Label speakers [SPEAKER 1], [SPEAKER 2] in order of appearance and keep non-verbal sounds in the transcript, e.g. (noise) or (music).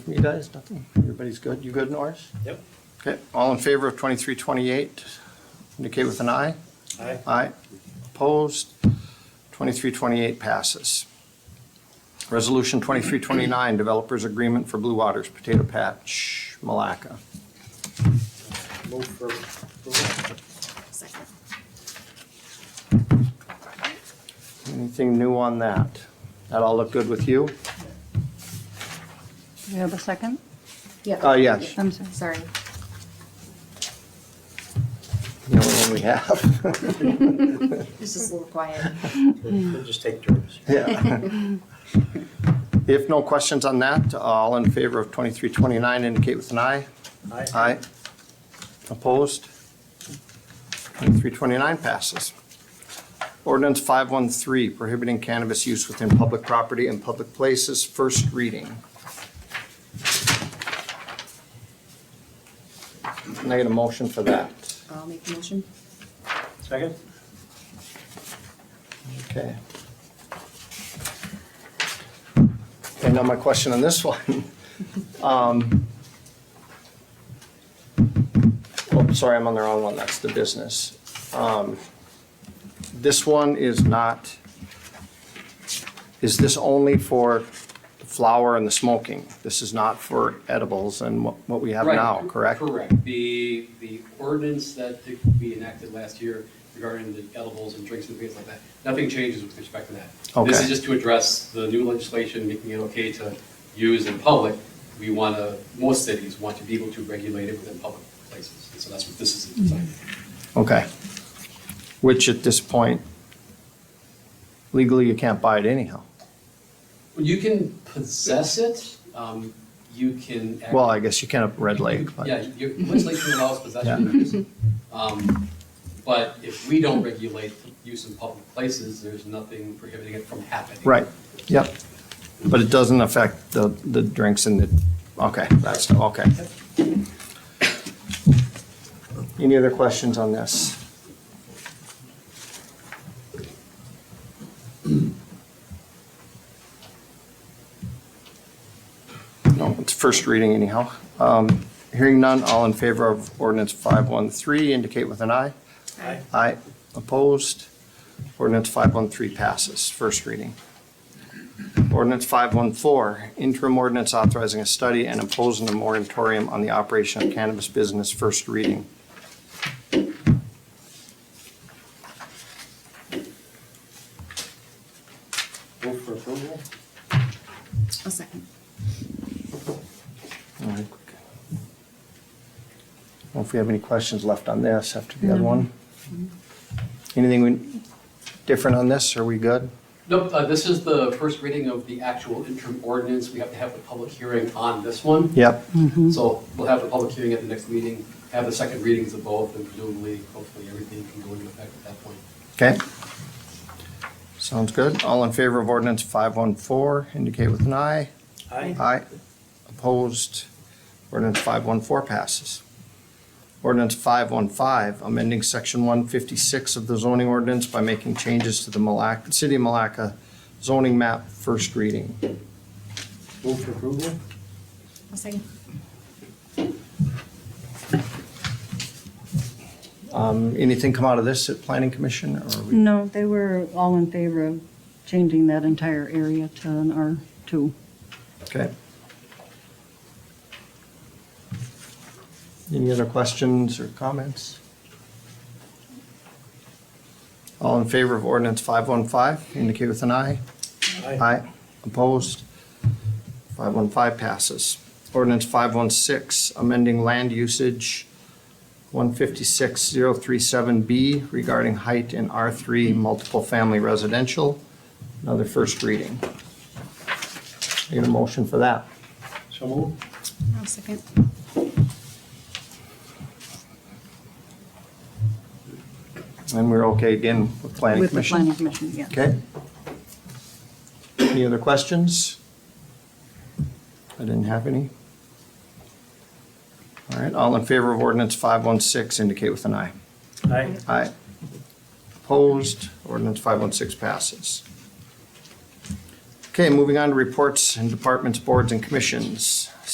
[SPEAKER 1] You guys, nothing? Everybody's good? You good, Norris?
[SPEAKER 2] Yep.
[SPEAKER 1] Okay, all in favor of twenty-three twenty-eight, indicate with an aye.
[SPEAKER 2] Aye.
[SPEAKER 1] Aye. Opposed? Twenty-three twenty-eight passes. Resolution twenty-three twenty-nine, developers agreement for Blue Waters Potato Patch, Malacca.
[SPEAKER 2] Move for approval.
[SPEAKER 3] Second.
[SPEAKER 1] Anything new on that? That all look good with you?
[SPEAKER 4] Do you have a second?
[SPEAKER 1] Uh, yes,
[SPEAKER 4] I'm sorry.
[SPEAKER 3] Sorry.
[SPEAKER 1] the only one we have. (laughs)
[SPEAKER 3] It's just a little quiet.
[SPEAKER 2] We'll just take turns.
[SPEAKER 1] Yeah. If no questions on that, all in favor of twenty-three twenty-nine, indicate with an aye.
[SPEAKER 2] Aye.
[SPEAKER 1] Aye. Opposed? 2329 passes. Ordinance 513, prohibiting cannabis use within public property and public places, first reading. Can I get a motion for that?
[SPEAKER 3] I'll make the motion.
[SPEAKER 2] Second?
[SPEAKER 1] Okay. And now my question on this (laughs) one. Um, Oh, sorry, I'm on the wrong one, that's the business. Um, This one is not, is this only for the flower and the smoking? This is not for edibles and what what we have
[SPEAKER 5] Right,
[SPEAKER 1] now,
[SPEAKER 5] cor-
[SPEAKER 1] correct?
[SPEAKER 5] Correct. The, the ordinance that did- we enacted last year regarding the edibles and drinks and things like that, nothing changes with respect to that. This
[SPEAKER 1] Okay.
[SPEAKER 5] is just to address the new legislation making it okay to use in public. We want to, most cities want to be able to regulate it within public places. And so that's what this is designed for.
[SPEAKER 1] Okay. Which at this point, legally, you can't buy it anyhow.
[SPEAKER 5] Well, You can possess it, um, you can. act-
[SPEAKER 1] Well, I guess you can at Red Lake, but.
[SPEAKER 5] Yeah, your legislation allows possession of use. Um, But if we don't regulate use in public places, there's nothing prohibiting it from happening.
[SPEAKER 1] Right, yep. But it doesn't affect the, the drinks and the, okay, that's, okay. Any other questions on this? No, it's first reading anyhow. Um, Hearing none, all in favor of ordinance 513, indicate with an eye.
[SPEAKER 2] Aye.
[SPEAKER 1] Aye. Opposed? Ordinance 513 passes, first reading. Ordinance 514, interim ordinance authorizing a study and imposing a moratorium on the operation of cannabis business, first reading.
[SPEAKER 2] Move for approval.
[SPEAKER 3] A second.
[SPEAKER 1] All right. Well, if we have any questions left on this after the other one? Anything we- different on this? Are we good?
[SPEAKER 5] Nope, uh, this is the first reading of the actual interim ordinance. We have to have a public hearing on this one.
[SPEAKER 1] Yep.
[SPEAKER 5] So we'll have the public hearing at the next meeting, have the second readings of both, and presumably, hopefully, everything can go into effect at that point.
[SPEAKER 1] Okay. Sounds good. All in favor of ordinance 514, indicate with an aye.
[SPEAKER 2] Aye.
[SPEAKER 1] Aye. Opposed? Ordinance 514 passes. Ordinance 515, amending Section 156 of the zoning ordinance by making changes to the Malacca, City of Malacca zoning map, first reading.
[SPEAKER 2] Move for approval.
[SPEAKER 3] A second.
[SPEAKER 1] Um, Anything come out of this at Planning Commission? or are we-
[SPEAKER 4] No, they were all in favor of changing that entire area to an R2.
[SPEAKER 1] Okay. Any other questions or comments? All in favor of ordinance 515, indicate with an aye. Aye. Opposed? 515 passes. Ordinance 516, amending land usage 156037B regarding height in R3 multiple family residential. Another first reading. Need a motion for that.
[SPEAKER 2] So move.
[SPEAKER 3] A second.
[SPEAKER 1] And we're okay again with planning
[SPEAKER 4] With the
[SPEAKER 1] commission?
[SPEAKER 4] planning commission, yeah.
[SPEAKER 1] Okay. Any other questions? I didn't have any. All right, all in favor of ordinance 516, indicate with an aye.
[SPEAKER 2] Aye.
[SPEAKER 1] Aye. Opposed, ordinance 516 passes. Okay, moving on to reports and departments, boards, and commissions.